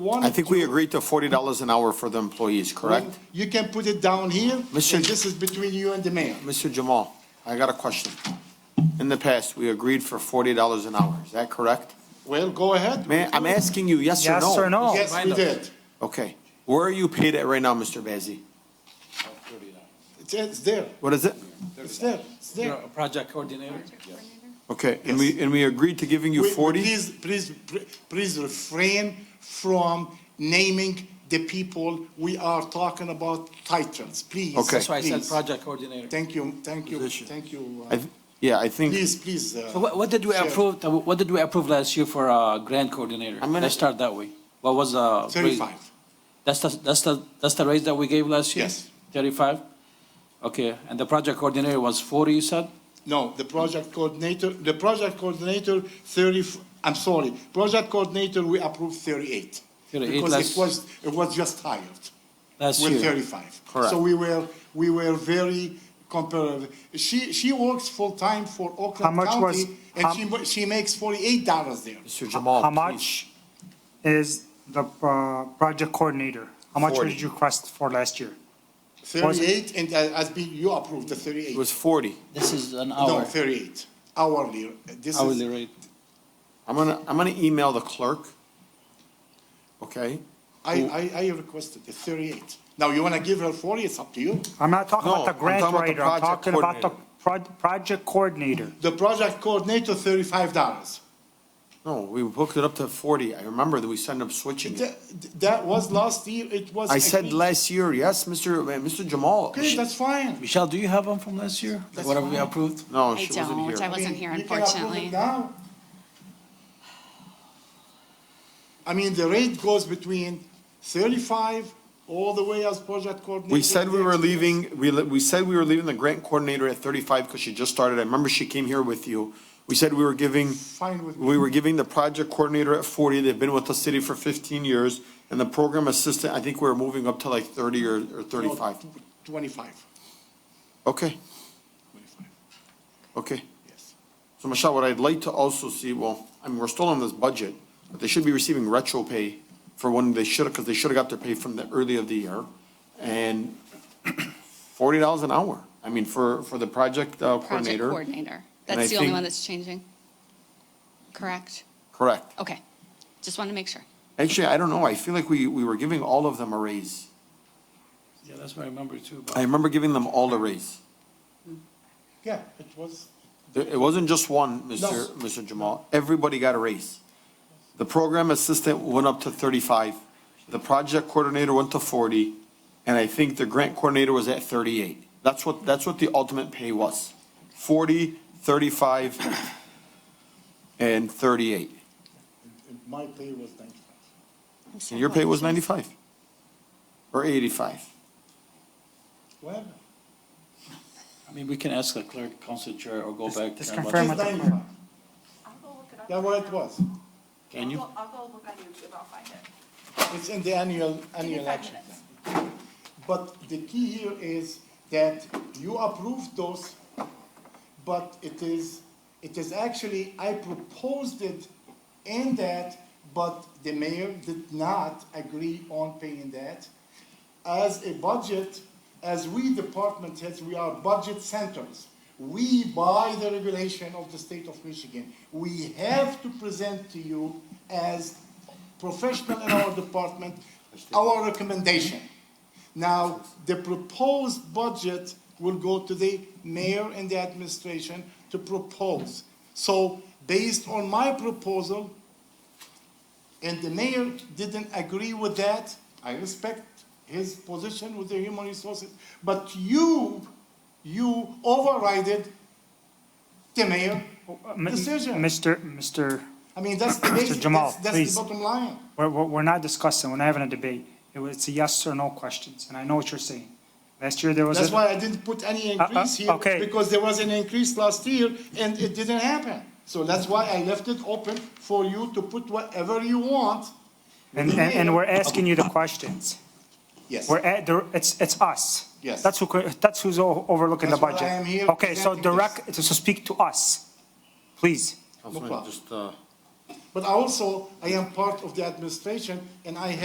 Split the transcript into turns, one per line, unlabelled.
one.
I think we
to-
agreed to forty dollars an hour for the employees, correct?
You can put it down here, and
Monsieur-
this is between you and the mayor.
Mr. Jamal, I got a question. In the past, we agreed for forty dollars an hour, is that correct?
Well, go ahead. Oh,
Man, I'm asking you, yes or no?
Yes or
Oh,
no?
Yes, we did.
Okay, where are you paid at right now, Mr. Bazey?
It's, it's there,
What is it?
it's there, it's
You're
there.
a project coordinator?
Okay, and we, and we agreed to giving you
We- we-
forty?
Please, please, please refrain from naming the people we are talking about titles, please.
Okay.
That's why I said
please.
project coordinator.
Thank you, thank you,
Position.
thank you. uh,
I th- Yeah, I think.
Please, please. uh,
So What, what did we
Sure.
approve, uh, what did we approve last year for uh, grant coordinator?
I'm gonna-
Let's start that way. What was the? raise?
35.
That's the, that's the, that's the raise that we gave last year?
Yes.
Thirty-five? Okay, and the project coordinator was forty, you said?
No, the project coordinator, the project coordinator, 30, I'm sorry, project coordinator, we approved 38.
38,
Because
less-
it was, it was just hired
Last
with
year?
35.
Correct.
So we were, we were very comparative. She, she works full-time for Oakland
much was-
County, and
how-
she, mo- she makes $48 there.
Mr. Jamal,
How
please.
much is the uh, project coordinator? How much
40.
did you request for last year?
38, and uh, as be- you approved the 38.
It was forty.
This is an
No,
hour,
38, hourly. This
hourly
is,
rate.
I'm gonna, I'm gonna email the clerk. Okay?
I, I, I requested the 38. Now, you want to give her 40, it's up to you.
I'm not talking
No,
about the
I'm talking
grant
about the
writer, I'm
project
talking about the proj- project coordinator.
The project coordinator, thirty-five dollars.
No, we booked it up to forty. I remember that we sent up switching it.
uh, That was last year, it was.
I said
agreed.
last year, yes, Mr. uh, Mr. Jamal.
Okay, that's fine.
Michelle, do you have one from last year?
That's
Whatever we
fine.
approved?
No,
I
she wasn't
don't, I
here.
wasn't here
You can approve it
unfortunately.
now. I mean, the rate goes between thirty-five all the way as project coordinator.
We said we were leaving, we, le- we said we were leaving the grant coordinator at thirty-five because she just started. I remember she came here with you. We said we were giving,
Fine with me.
we were giving the project coordinator at forty. They've been with the city for fifteen years. And the program assistant, I think we were moving up to like thirty or, or thirty-five.
Twenty-five,
Okay,
twenty-five,
okay.
yes.
So Michelle, what I'd like to also see, well, I mean, we're still on this budget, but they should be receiving retro pay for when they should have, because they should have got their pay from the early of the year. And forty dollars an hour, I mean, for, for the project uh,
Project
coordinator.
coordinator.
And I
That's the only
think-
one that's changing. Correct?
Correct.
Okay. Just want to make sure.
Actually, I don't know, I feel like we, we were giving all of them a raise.
Yeah, that's what I remember too. but-
I remember giving them all a raise.
Yeah, it was,
There- It wasn't just one, Mr.
No.
Mr. Jamal. Everybody got a raise. The program assistant went up to thirty-five, the project coordinator went to forty, and I think the grant coordinator was at thirty-eight. That's what, that's what the ultimate pay was. Forty, thirty-five, and thirty-eight.
my pay was ninety-five.
And your pay was ninety-five? Or eighty-five?
Well,
I mean, we can ask the clerk, council chair, or go back.
just
to our budget.
confirm
it's
with the clerk.
ninety-five.
I'll go look it up.
That's
right
what it
now.
was.
Can you?
I'll go- I'll go look on YouTube, I'll find it.
It's in the annual, annual
five
action
minutes.
plan. But the key here is that you approved those, but it is, it is actually, I proposed it in that, but the mayor did not agree on paying that. As a budget, as we department heads, we are budget centers. We buy the regulation of the state of Michigan. We have to present to you as professional in our department, our recommendation. Now, the proposed budget will go to the mayor and the administration to propose. So based on my proposal, and the mayor didn't agree with that, I respect his position with the human resources, but you, you overrided the mayor
M-
decision.
Mr. Mr.,
I mean, that's the
Mr.
basic,
Jamal,
that's, that's the
please.
bottom line.
we're, we're we're not discussing, we're not having a debate. It was, it's a yes or no questions, and I know what you're saying. Last year, there was.
That's
a-
why I didn't put any
uh,
increase here,
okay.
because there was an increase last year and it didn't happen. So that's why I left it open for you to put whatever you want.
And, and, and we're asking you the questions.
Yes.
We're at, there- it's, it's us.
Yes.
That's who, co- that's who's o- overlooking the
That's why
budget.
I am here
Okay, so
presenting this.
direct, so speak to us, please.
Councilman,
problem.
just, uh,
But also, I am part of the administration and I